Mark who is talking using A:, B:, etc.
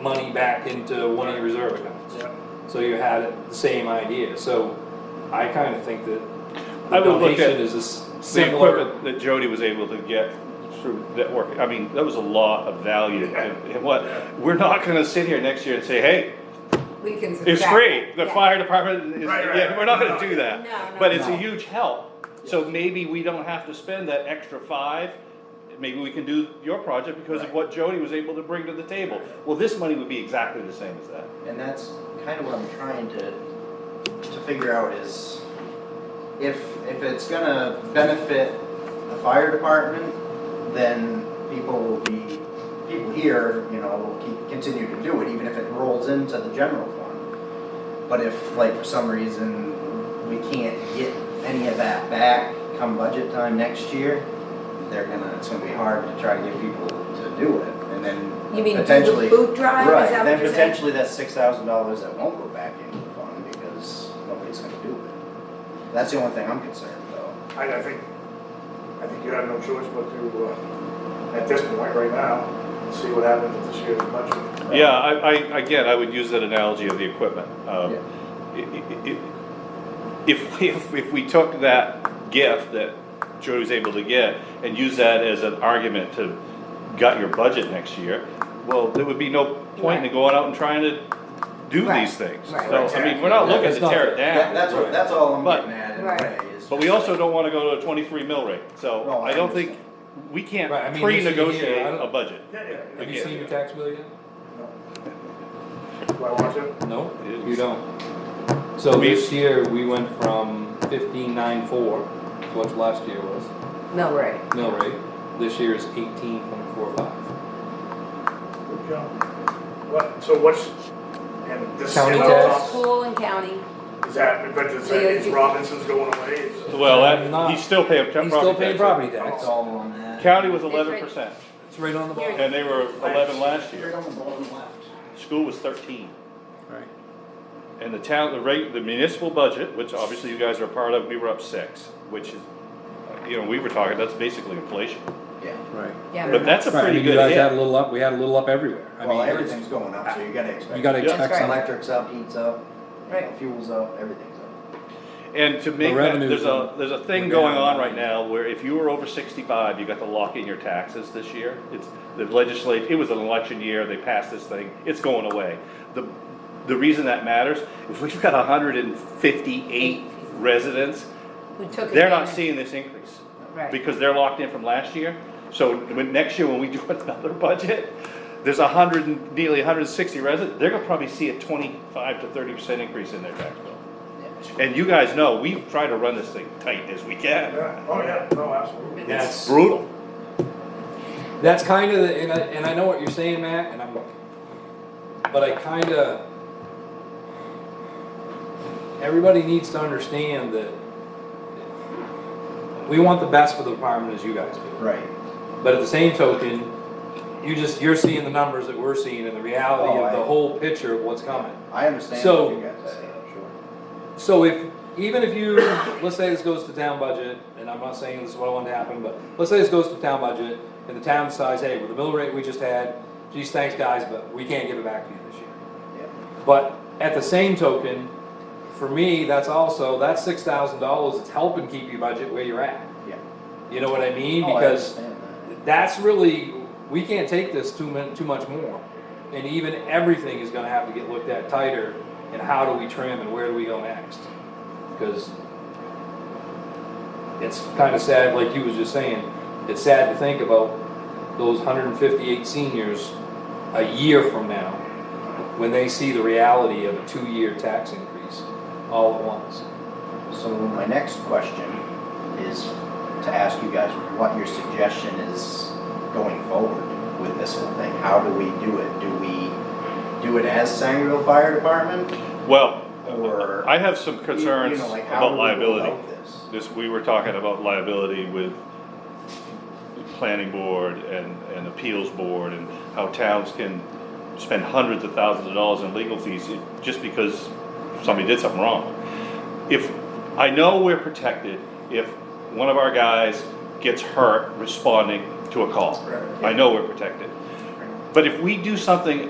A: money back into one of your reserve accounts.
B: Yeah.
A: So you had the same idea, so I kinda think that
B: I
A: the
B: would look at
A: donation is a s-
B: The
A: similar.
B: equipment that Jody was able to get through that work, I mean, that was a lot of value. And and what, we're not gonna sit here next year and say, hey,
C: We can.
B: it's
C: subtract
B: free, the
C: that.
B: fire department is,
D: Right, right,
B: yeah, we're not gonna
D: right.
B: do
C: No,
B: that.
C: no,
B: But it's a
C: no.
B: huge help, so maybe we don't have to spend that extra five. Maybe we can do your project because of
D: Right.
B: what Jody was able to bring to the table. Well, this money would be exactly the same as that.
E: And that's kind of what I'm trying to, to figure out is if, if it's gonna benefit the fire department, then people will be, people here, you know, will keep, continue to do it, even if it rolls into the general fund. But if, like, for some reason, we can't get any of that back come budget time next year, they're gonna, it's gonna be hard to try to get people to do it, and then
C: You mean
E: potentially.
C: boot, boot drive?
E: Right,
C: Is that
E: then
C: what you're saying?
E: potentially that's six thousand dollars that won't go back into the fund because nobody's gonna do it. That's the only thing I'm concerned though.
D: I, I think, I think you have no choice but to, uh, at this point right now, see what happens with this year's budget.
B: Yeah, I, I, again, I would use that analogy of the equipment. Um,
E: Yeah.
B: i- i- i- If, if, if we took that gift that Jody was able to get and use that as an argument to gut your budget next year, well, there would be no point in
C: Right.
B: going out and trying to do
C: Right,
B: these things.
C: right.
B: So, I mean, we're not
A: Yeah,
B: looking
A: it's
B: to
A: not-
B: tear it
E: That,
B: down,
E: that's what, that's all I'm
B: But-
E: getting at in a
C: Right.
E: way is.
B: but we also don't wanna go to a twenty-three mill rate, so
E: No, I
B: I don't think, we can't
A: Right, I mean, this year,
B: pre-negotiate
A: I don't-
B: a budget.
D: Yeah, yeah.
A: Have you seen your tax bill yet?
D: Do I watch it?
A: No,
B: It's-
A: you don't. So
B: We-
A: this year, we went from fifteen nine four, what last year was,
C: No, right.
A: mill rate, this year is eighteen point four five.
D: Good job. What, so what's, and this.
A: County
D: is-
A: tax.
C: School and county.
D: Is that, but is that, is Robinson's going away? Is-
B: Well,
A: I'm
B: that,
A: not-
B: he's still paying
A: He's still paying
B: property
A: property
E: It's
A: tax,
E: all on that.
B: taxes. County was
C: That's right.
B: eleven percent.
A: it's right on the ball.
B: And they were eleven last
E: Right
B: year.
E: on the bottom left.
B: School was thirteen.
A: Right.
B: And the town, the rate, the municipal budget, which obviously you guys are a part of, we were up six, which is, you know, we were talking, that's basically inflation.
E: Yeah,
A: Right.
C: Yeah.
B: But that's a
A: Right, I
B: pretty
A: mean, you
B: good
A: guys had a
B: hit.
A: little up, we had a little up everywhere. I
E: well,
A: mean, it's-
E: everything's going up, so you gotta expect.
A: You gotta
B: Yeah.
A: expect
C: That's right.
A: something.
E: Electric's up, heat's up, you know,
C: Right.
E: fuel's up, everything's up.
B: And to make that,
A: revenues
B: there's a,
A: are-
B: there's a thing
A: were
B: going
A: down.
B: on right now where if you were over sixty-five, you got to lock in your taxes this year. It's, the legislature, it was an election year, they passed this thing, it's going away. The, the reason that matters, if we've got hundred and fifty-eight residents,
C: Who took
B: they're not
C: advantage.
B: seeing this increase.
C: Right.
B: because they're locked in from last year. So when, next year, when we do another budget, there's a hundred and, nearly hundred and sixty residents, they're gonna probably see a twenty-five to thirty percent increase in their tax bill. And you guys know, we try to run this thing tight as we can.
D: Yeah. Oh, yeah, no, absolutely.
A: That's,
B: Brutal.
A: that's kind of, and I, and I know what you're saying, Matt, and I'm, but I kind of, everybody needs to understand that we want the best for the department as you guys do.
E: Right.
A: But at the same token, you just, you're seeing the numbers that we're seeing and the reality
E: Oh,
A: of the
E: I-
A: whole picture of what's coming.
E: I understand
A: So-
E: what you guys are saying, sure.
A: So if, even if you, let's say this goes to town budget, and I'm not saying this is what I want to happen, but let's say this goes to town budget, and the town decides, hey, with the mill rate we just had, geez, thanks guys, but we can't give it back to you this year.
E: Yeah.
A: But at the same token, for me, that's also, that's six thousand dollars, it's helping keep your budget where you're at.
E: Yeah.
A: You know what I mean?
E: Oh, I
A: Because
E: understand that.
A: that's really, we can't take this too min, too much more. And even everything is gonna have to get looked at tighter, and how do we trim and where do we go next? Because it's kinda sad, like you was just saying, it's sad to think about those hundred and fifty-eight seniors a year from now, when they see the reality of a two-year tax increase all at once.
E: So my next question is to ask you guys what your suggestion is going forward with this whole thing. How do we do it? Do we do it as Sangerville Fire Department
B: Well,
E: or?
B: I have some concerns
E: You know, like, how do
B: about
E: we go
B: liability.
E: about this?
B: This, we were talking about liability with the planning board and, and appeals board and how towns can spend hundreds of thousands of dollars in legal fees just because somebody did something wrong. If, I know we're protected if one of our guys gets hurt responding to a call.
D: Right.
B: I know we're protected. But if we do something